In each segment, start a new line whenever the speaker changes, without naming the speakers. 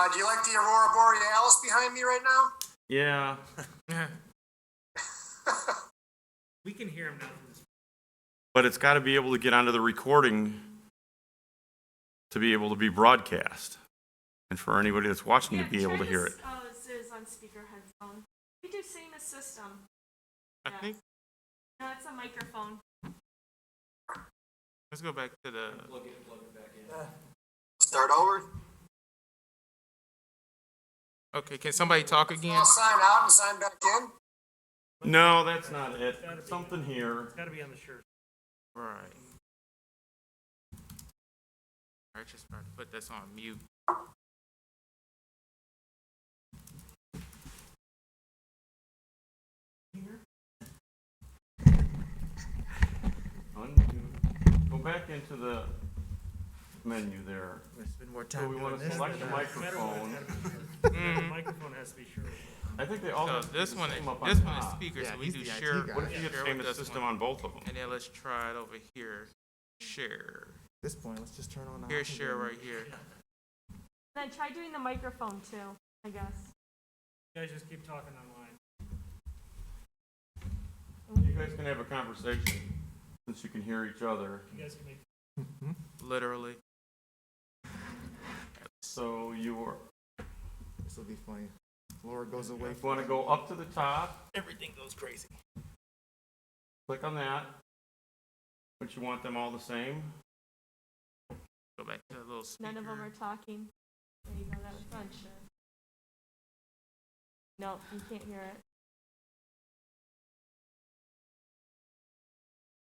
Uh, do you like the Aurora Borealis behind me right now?
Yeah.
We can hear him now. from this-
But it's got to be able to get onto the recording to be able to be broadcast. And for anybody that's watching to
Yeah,
be able
try
to hear it.
this, Oh, Zoos on speaker headphone. We do same as system.
I
Yeah.
think,
No, it's a microphone.
let's go back to the,
Start over.
okay, can somebody talk again?
I'll sign out and sign back in.
No, that's not it. Something here.
It's gotta be on the shirt.
Right. I just about to put this on mute.
Undo. Go back into the menu there.
Let's spend more
So
time
we
doing
want to
this.
select the
No matter what, it's
microphone.
gotta be shirt. The Microphone has to be shirt.
I think they all
So
have to be
this
the
one,
same up on
this one is
top.
speaker,
Yeah,
so we
he's
do
the IT
share.
guy.
What if you
share
get
with
same
this
system
one?
on both of them?
And then let's try it over here. Share,
At this point, let's just turn on. our
here,
computer.
share right here.
Then try doing the microphone too, I guess.
You guys just keep talking online.
You guys can have a conversation since you can hear each other.
You guys can make
Literally.
So you are,
This will be funny. Laura goes away.
if you want to go up to the top,
Everything goes crazy.
click on that. But you want them all the same?
Go back to the little speaker.
None of them are talking. There you go, that was fun. Sure. No, you can't hear it.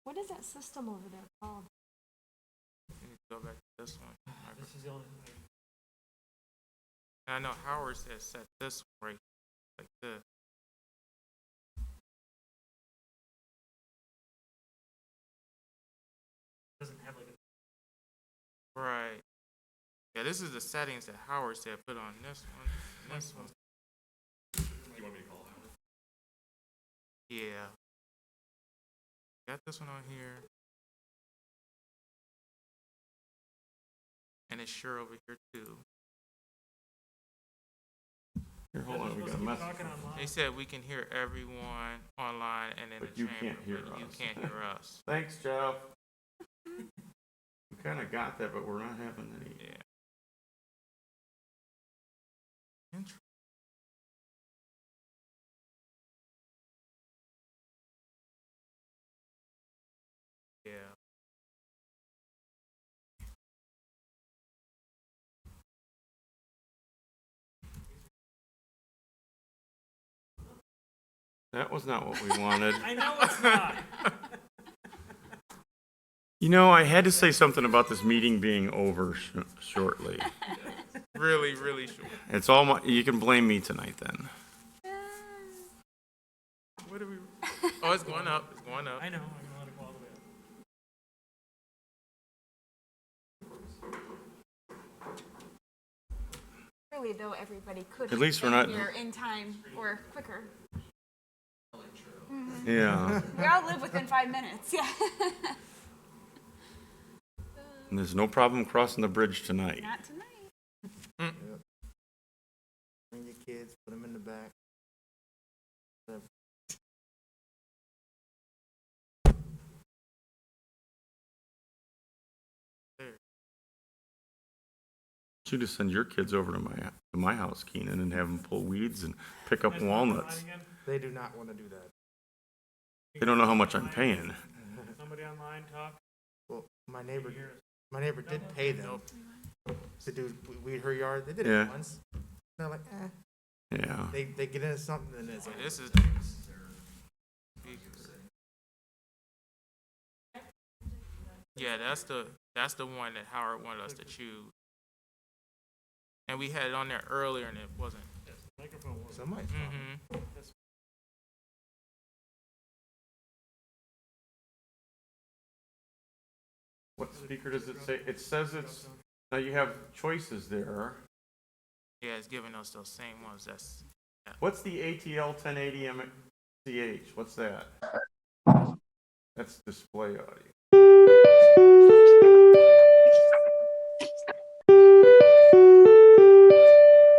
What is that system over there called?
You need to Go back to this one.
This is the only,
I know Howard said set this one right, like this.
doesn't have like a,
Right. Yeah, this is the settings that Howard said put on this one, and this one. You want me to call Howard? Yeah. Got this one on here. And it's sure over here too.
Here, hold
You're
on, we
supposed
got a
to keep
message.
talking online.
They said we can hear everyone online and in
But
the
you
chamber,
can't hear
but you
us.
can't hear us.
Thanks, Jeff. We kind of got that, but we're not having any.
Yeah. Interesting. Yeah.
That was not what we wanted.
I know it's not.
You know, I had to say something about this meeting being over sh- shortly.
Really, really short.
It's all my, you can blame me tonight then.
What are we? Oh, it's going up. It's going up.
I know, I'm gonna let it go all the way up.
Really though, everybody could.
At least we're not-
Here in time or quicker.
Yeah.
We all live within five minutes, yeah.
And there's no problem crossing the bridge tonight.
Not tonight.
Bring your kids, put them in the back.
You just send your kids over to my to my house, Keenan, and have them pull weeds and pick up walnuts.
Online again?
They do not want to do that.
They don't know how much I'm paying.
Somebody online talk,
Well, my neighbor,
hear us.
my neighbor did pay them to do weed her yard. They did it
Yeah.
once. They're like, eh.
Yeah.
They, they get into something and it's like,
This is. Yeah, that's the that's the one that Howard wanted us to choose. And we had it on there earlier, and it wasn't.
microphone was.
somebody's talking.
hmm
What speaker does it say? It says it's now you have choices there.
Yeah, it's giving us those same ones. That's
What's the ATL 1080 MCH? What's that? That's display audio.